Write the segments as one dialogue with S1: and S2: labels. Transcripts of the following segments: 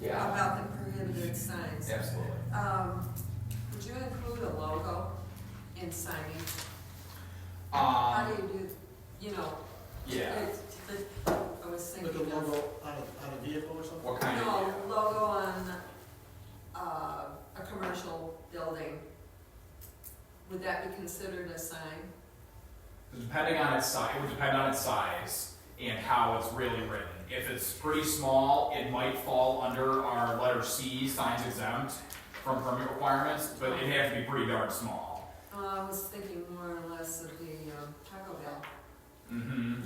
S1: Yeah.
S2: about the prohibited signs.
S1: Absolutely.
S2: Um, would you include a logo in signage? How do
S1: Um,
S2: you do, you know?
S1: yeah,
S2: it's- it- I was
S3: Like a
S2: thinking of,
S3: logo on a, on a vehicle or something?
S1: what kind of?
S2: no, logo on, uh, a commercial building. Would that be considered a sign?
S1: Depending on its size, it would depend on its size and how it's really written. If it's pretty small, it might fall under our letter C, signs exempt from permit requirements, but it'd have to be pretty darn small.
S2: Uh, I was thinking more or less of the um, Taco Bell,
S1: hmm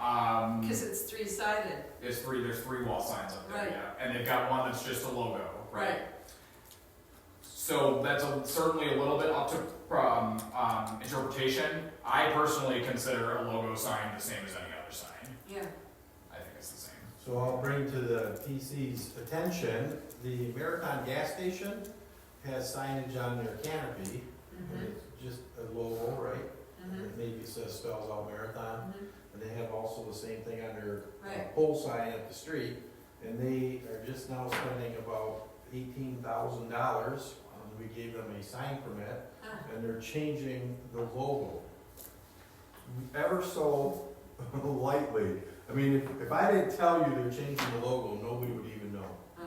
S1: Um,
S2: because it's three-sided.
S1: there's three, there's three wall signs up there,
S2: Right.
S1: yeah, and they've got one that's just a logo, right? So that's a, certainly a little bit up to um, um, interpretation. I personally consider a logo sign the same as any other sign.
S2: Yeah,
S1: I think it's the same.
S4: So I'll bring to the PC's attention, the Marathon gas station has signage on their canopy. and
S1: mm-hmm.
S2: mhm,
S4: It's just a logo, right?
S2: mhm,
S4: It Maybe says spells out Marathon.
S2: mhm,
S4: And they have also the same thing on their uh,
S2: Right.
S4: pole sign up the street. And they are just now spending about eighteen thousand dollars. um, We gave them a sign permit
S2: huh.
S4: and they're changing the logo ever so lightly. I mean, if, if I didn't tell you they're changing the logo, nobody would even know.
S2: Uh,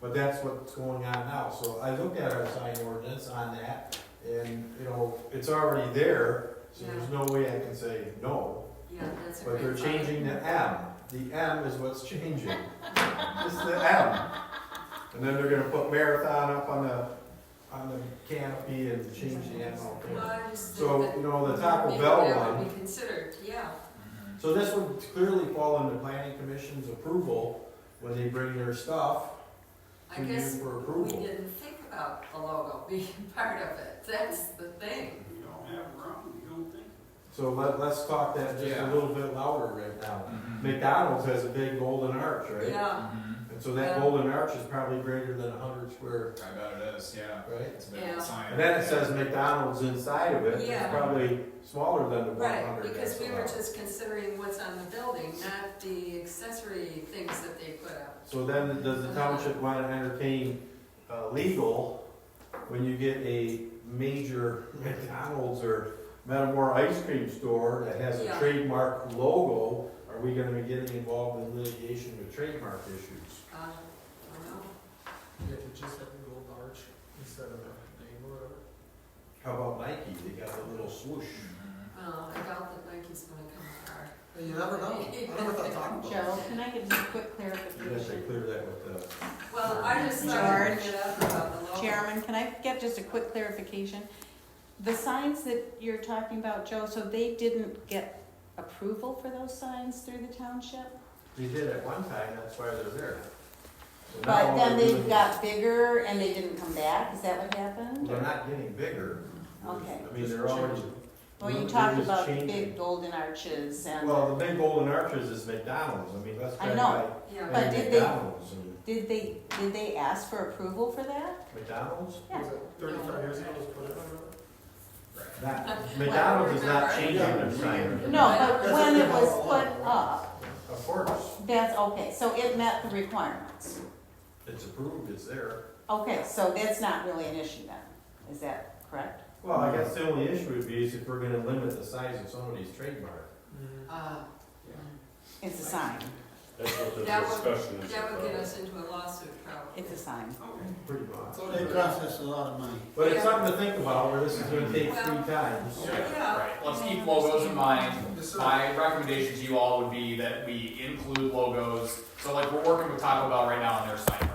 S4: But that's what's going on now. So I looked at our sign ordinance on that, and, you know, it's already there, so there's no way I can say no.
S2: Yeah, that's a
S4: But
S2: great.
S4: they're
S2: thought.
S4: changing the M. The M is what's changing. It's the M. And then they're gonna put marathon up on the, on the canopy and change the M out
S2: Well,
S4: there.
S2: I just think
S4: So,
S2: that.
S4: you know, the
S2: maybe
S4: Taco Bell
S2: That
S4: one,
S2: would be considered, yeah,
S1: Mhm.
S4: so this would clearly fall under planning commission's approval when they bring their stuff
S2: I
S4: to you
S2: guess
S4: for
S2: we
S4: approval.
S2: didn't think about the logo being part of it, that's the thing.
S5: You don't have room, you don't think?
S4: So let, let's talk that just a
S1: Yeah.
S4: little bit louder right now.
S1: Mhm.
S4: McDonald's has a big golden arch, right?
S2: Yeah,
S1: Mhm.
S4: And so that
S2: Yeah.
S4: golden arch is probably greater than a hundred square,
S1: I bet it is, yeah.
S4: right?
S1: It's a bit
S2: Yeah.
S1: of science.
S4: And then it says McDonald's inside of it, it's
S2: Yeah.
S4: probably smaller than the one
S2: right,
S4: hundred
S2: because
S4: that's
S2: we were
S4: allowed.
S2: just considering what's on the building, not the accessory things that they put up.
S4: So then, does the township wanna entertain, uh, legal, when you get a major McDonald's or Metamora ice cream store that has a
S2: Yeah.
S4: trademark logo, are we gonna be getting involved in litigation with trademark issues?
S2: Uh, I don't know.
S3: Yeah, it just had a gold arch instead of a name or whatever.
S4: How about Nike, they got the little swoosh?
S1: Mhm.
S2: Well, Uh, I doubt that Nike's gonna come far.
S3: But you never know, I never thought Taco Bell.
S6: Joe, can I get just a quick
S4: You guys should
S6: clarification?
S4: clear that with uh, the,
S2: Well, I just thought I'd
S6: George.
S2: bring it up about the logo.
S6: Chairman, can I get just a quick clarification? The signs that you're talking about, Joe, so they didn't get approval for those signs through the township?
S4: they did at one time, that's why they're there. So now
S6: But then
S4: they're
S6: they
S4: doing-
S6: got bigger and they didn't come back, is that what happened?
S4: They're not getting bigger.
S6: Okay.
S4: I mean, they're already.
S6: Well, you
S4: they're
S6: talked
S4: just
S6: about the
S4: changing.
S6: big golden arches and,
S4: Well, the big golden arches is McDonald's, I mean, that's
S6: I
S4: kind
S6: know.
S4: of
S2: Yeah,
S4: like.
S6: But
S4: hey,
S6: did they-
S4: McDonald's and
S6: did they, did they ask for approval for that?
S4: McDonald's?
S3: Was it Thirty-five years ago, it was put in, or
S4: Not, McDonald's is not changing their sign,
S6: No, but
S3: That's
S6: when
S3: what
S6: it
S3: they
S6: was
S3: all
S6: put
S3: want.
S6: up,
S4: of course,
S6: that's okay, so it met the requirements.
S4: it's approved, it's there.
S6: Okay, so that's not really an issue then, is that correct?
S4: Well, I guess the only issue would be is if we're gonna limit the size of somebody's trademark.
S2: Uh,
S6: It's a sign,
S7: That's what the
S2: That would-
S7: discussion is
S2: that would get
S7: about.
S2: us into a lawsuit probably.
S6: it's a sign.
S4: Pretty much.
S3: Mm-hmm. They process a lot of money.
S4: But it's something to think about, where this is gonna take
S2: Well-
S4: three times.
S2: Yeah.
S1: Right, let's keep logos in mind. My recommendation to you all would be that we include logos. So like, we're working with Taco Bell right now on their sign permit.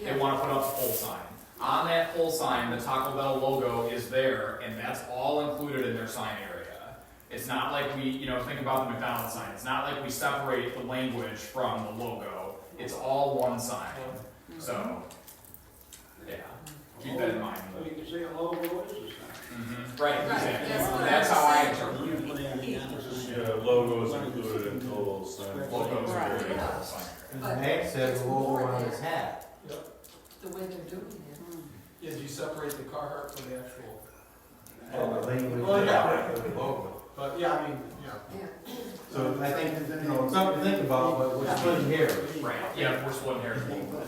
S1: They
S2: Yeah.
S1: wanna put up a pole sign. On that pole sign, the Taco Bell logo is there, and that's all included in their sign area. It's not like we, you know, think about the McDonald's sign, it's not like we separate the language from the logo. It's all one sign, so, yeah, keep that in mind.
S5: So you can say a logo is a sign.
S1: Mhm. Right,
S2: Right,
S1: exactly,
S2: that's what I
S1: that's how I
S2: was
S1: interpret
S5: You can put anything on the sign.
S7: Yeah, logos included in total
S5: Right.
S7: sign.
S1: logos are
S6: Right.
S1: very important sign area.
S4: And Max has a logo on his hat.
S2: The way they're doing it.
S6: Hmm.
S3: Yeah, do you separate the Carhartt from the actual,
S4: Oh, the language.
S3: Well, yeah.
S4: of the logo.
S3: but yeah, I mean, yeah.
S2: Yeah.
S4: So I think, you know, it's something to think about, but we're splitting hairs.
S1: Right, yeah, we're splitting hairs a little bit.